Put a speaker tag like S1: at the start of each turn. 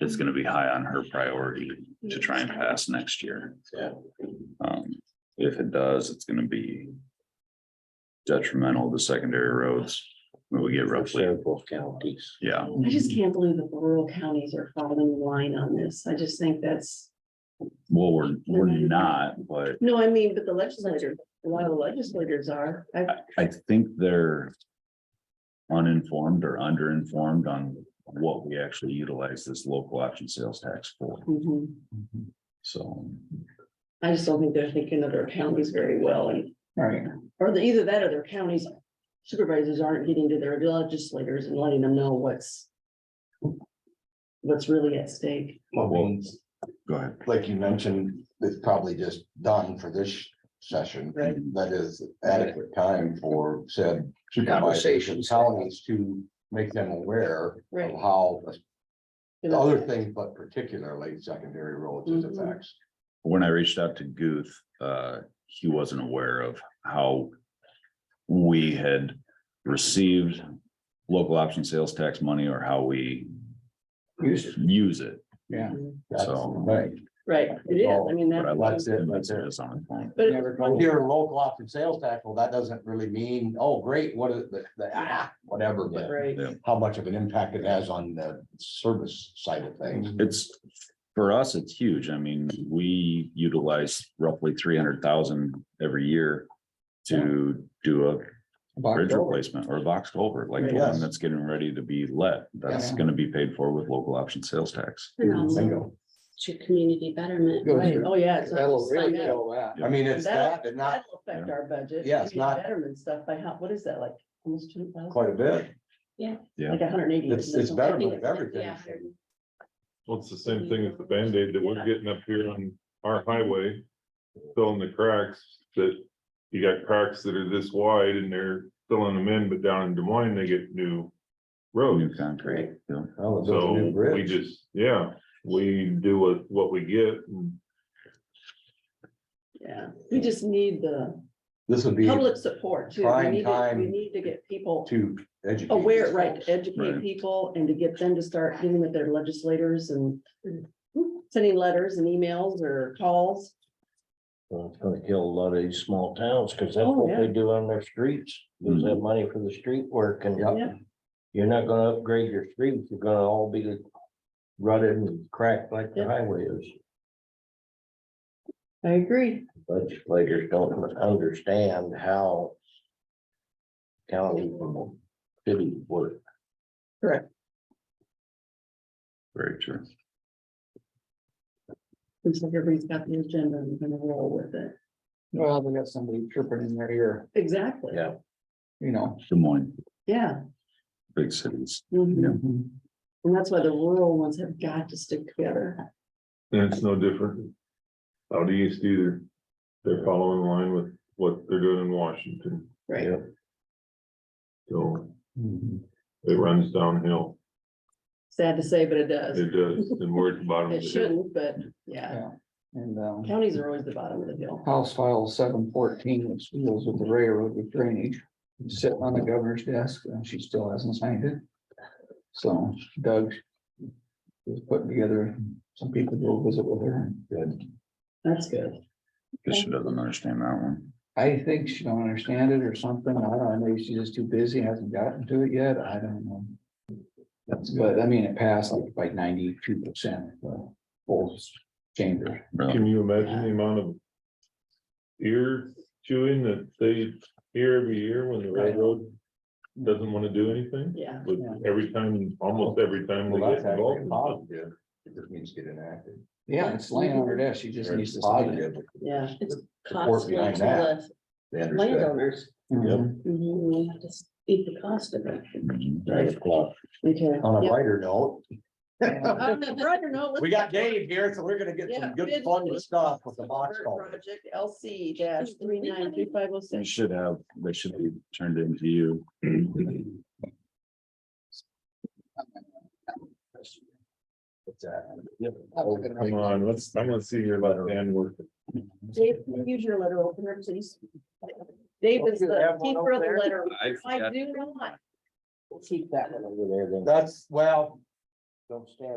S1: it's gonna be high on her priority to try and pass next year.
S2: Yeah.
S1: Um, if it does, it's gonna be detrimental to secondary roads. We get roughly,
S2: Both counties.
S1: yeah,
S3: I just can't believe that the rural counties are following the line on this. I just think that's,
S1: well, we're, we're not, but
S3: no, I mean, but the legislators, a lot of the legislators are. I,
S1: I think they're uninformed or underinformed on what we actually utilize this local option sales tax for,
S3: mhm.
S2: Mm-hmm.
S1: so.
S3: I just don't think they're thinking of their counties very well and,
S4: Right.
S3: or the, either that or their counties supervisors aren't getting to their legislators and letting them know what's what's really at stake.
S2: Well,
S1: Go ahead.
S2: like you mentioned, it's probably just done for this session.
S3: Right.
S2: That is adequate time for said conversations, counties to make them aware of
S3: Right.
S2: how the other things, but particularly secondary roads is
S3: Mhm.
S2: effects.
S1: When I reached out to Guth, uh, he wasn't aware of how we had received local option sales tax money or how we use it.
S4: Yeah.
S2: That's
S1: So-
S2: right.
S3: Mhm. Right, it is. I mean,
S1: But I like
S3: that's,
S2: That's it, that's it.
S1: this on the phone.
S3: but
S4: Never
S2: When
S4: go.
S2: you're local option sales tax, well, that doesn't really mean, oh, great, what is the, the, ah, whatever, but
S3: right,
S1: Yeah.
S2: how much of an impact it has on the service side of things.
S1: It's, for us, it's huge. I mean, we utilize roughly three hundred thousand every year to do a bridge replacement or a box culvert, like the one
S2: Yes.
S1: that's getting ready to be let. That's
S4: Yeah.
S1: gonna be paid for with local option sales tax.
S5: And also
S2: Bingo.
S5: to community betterment.
S4: Good.
S5: right?
S3: oh, yeah. it's not
S4: That'll
S3: just
S4: really
S3: like-
S4: kill that.
S2: I mean, it's that,
S3: That'll
S2: and not
S3: that'll affect our budget.
S2: Yeah, it's
S3: Maybe
S2: not-
S3: Betterment stuff by how, what is that, like, almost two thousand,
S2: quite a bit.
S3: like a hundred and eighty?
S2: It's, it's
S5: I
S2: better
S5: think
S2: than
S5: it's-
S2: everything.
S5: yeah.
S6: Well, it's the same thing as the Band-Aid that we're getting up here on our highway, filling the cracks that. You got cracks that are this wide and they're filling them in, but down in Des Moines, they get new
S1: New
S6: roads.
S1: concrete, yeah.
S2: Well, it's a
S6: So
S2: new
S6: we
S2: bridge.
S6: just, yeah, we do what, what we get. and
S3: Yeah, we just need the
S2: This would be
S3: public support too. We
S2: prime
S3: need to, we
S2: time
S3: need to get people
S2: to educate.
S3: aware,
S2: these
S3: right,
S2: folks.
S3: to educate
S1: Right.
S3: people and to get them to start dealing with their legislators and sending letters and emails or calls.
S7: Well, it's gonna kill a lot of these small towns, cause that's
S3: Oh,
S7: what
S3: yeah.
S7: they do on their streets, use that money for the street work and.
S2: Yep.
S3: Yeah.
S7: You're not gonna upgrade your streets, you're gonna all be rutted and cracked like the
S3: Yep.
S7: highway is.
S3: I agree.
S7: Legislators don't understand how. County, city work.
S1: Very true.
S3: Looks like everybody's got the agenda and we're gonna roll with it.
S4: Well, they got somebody chirping in their ear,
S3: Exactly.
S7: Yeah.
S4: you know.
S1: Des Moines,
S3: Yeah.
S1: big cities.
S3: mhm.
S2: Mm-hmm.
S3: And that's why the rural ones have got to stick together.
S6: And it's no different. Out east either. They're following line with what they're doing in Washington,
S3: Right.
S6: so it runs downhill.
S3: Sad to say, but it does.
S6: It does, and we're at the bottom of
S3: It
S6: the hill.
S3: shouldn't, but yeah,
S4: And, um,
S3: counties are always the bottom of the hill.
S4: House File seven fourteen, which deals with the railroad with drainage, sitting on the governor's desk, and she still hasn't signed it. So Doug is putting together some people to go visit with her. Good.
S3: That's good.
S1: Guess she doesn't understand that one.
S4: I think she don't understand it or something. I don't know. Maybe she's just too busy, hasn't gotten to it yet. I don't know. That's, but I mean, it passed like by ninety-two percent, the whole chamber.
S3: Oh.
S1: Really.
S6: Can you imagine the amount of ear chewing that they hear every year when the railroad doesn't want to do anything?
S3: Yeah.
S6: But every time, almost every time they
S2: Well,
S6: get
S2: that's actually
S6: involved.
S2: positive. It just means get enacted.
S4: Yeah, it's laying on her desk. She just
S2: Very
S4: needs to sign it.
S2: positive.
S3: Yeah.
S2: Support
S5: Cost
S2: behind
S5: to
S2: that.
S5: the
S2: They understand.
S5: landowners,
S4: Mhm.
S5: Mhm, we have to eat the cost of it.
S2: Right. Well,
S3: Okay.
S2: On a
S5: Yep.
S2: lighter note,
S3: Um, Roger, no, let's-
S2: we got Dave here, so we're gonna get
S3: Yeah,
S2: some good
S3: bid
S2: fun
S3: list.
S2: stuff with the box culvert.
S3: Project LC dash three nine three five oh
S1: They
S3: six.
S1: should have, they should be turned into you.
S2: What's that?
S6: Come on, let's, I'm gonna see your left hand work.
S3: Dave, can you use your letter opener, please? Dave is the keeper of the letter. I do not.
S7: Keep that one over there then.
S2: That's, well,
S7: Don't stand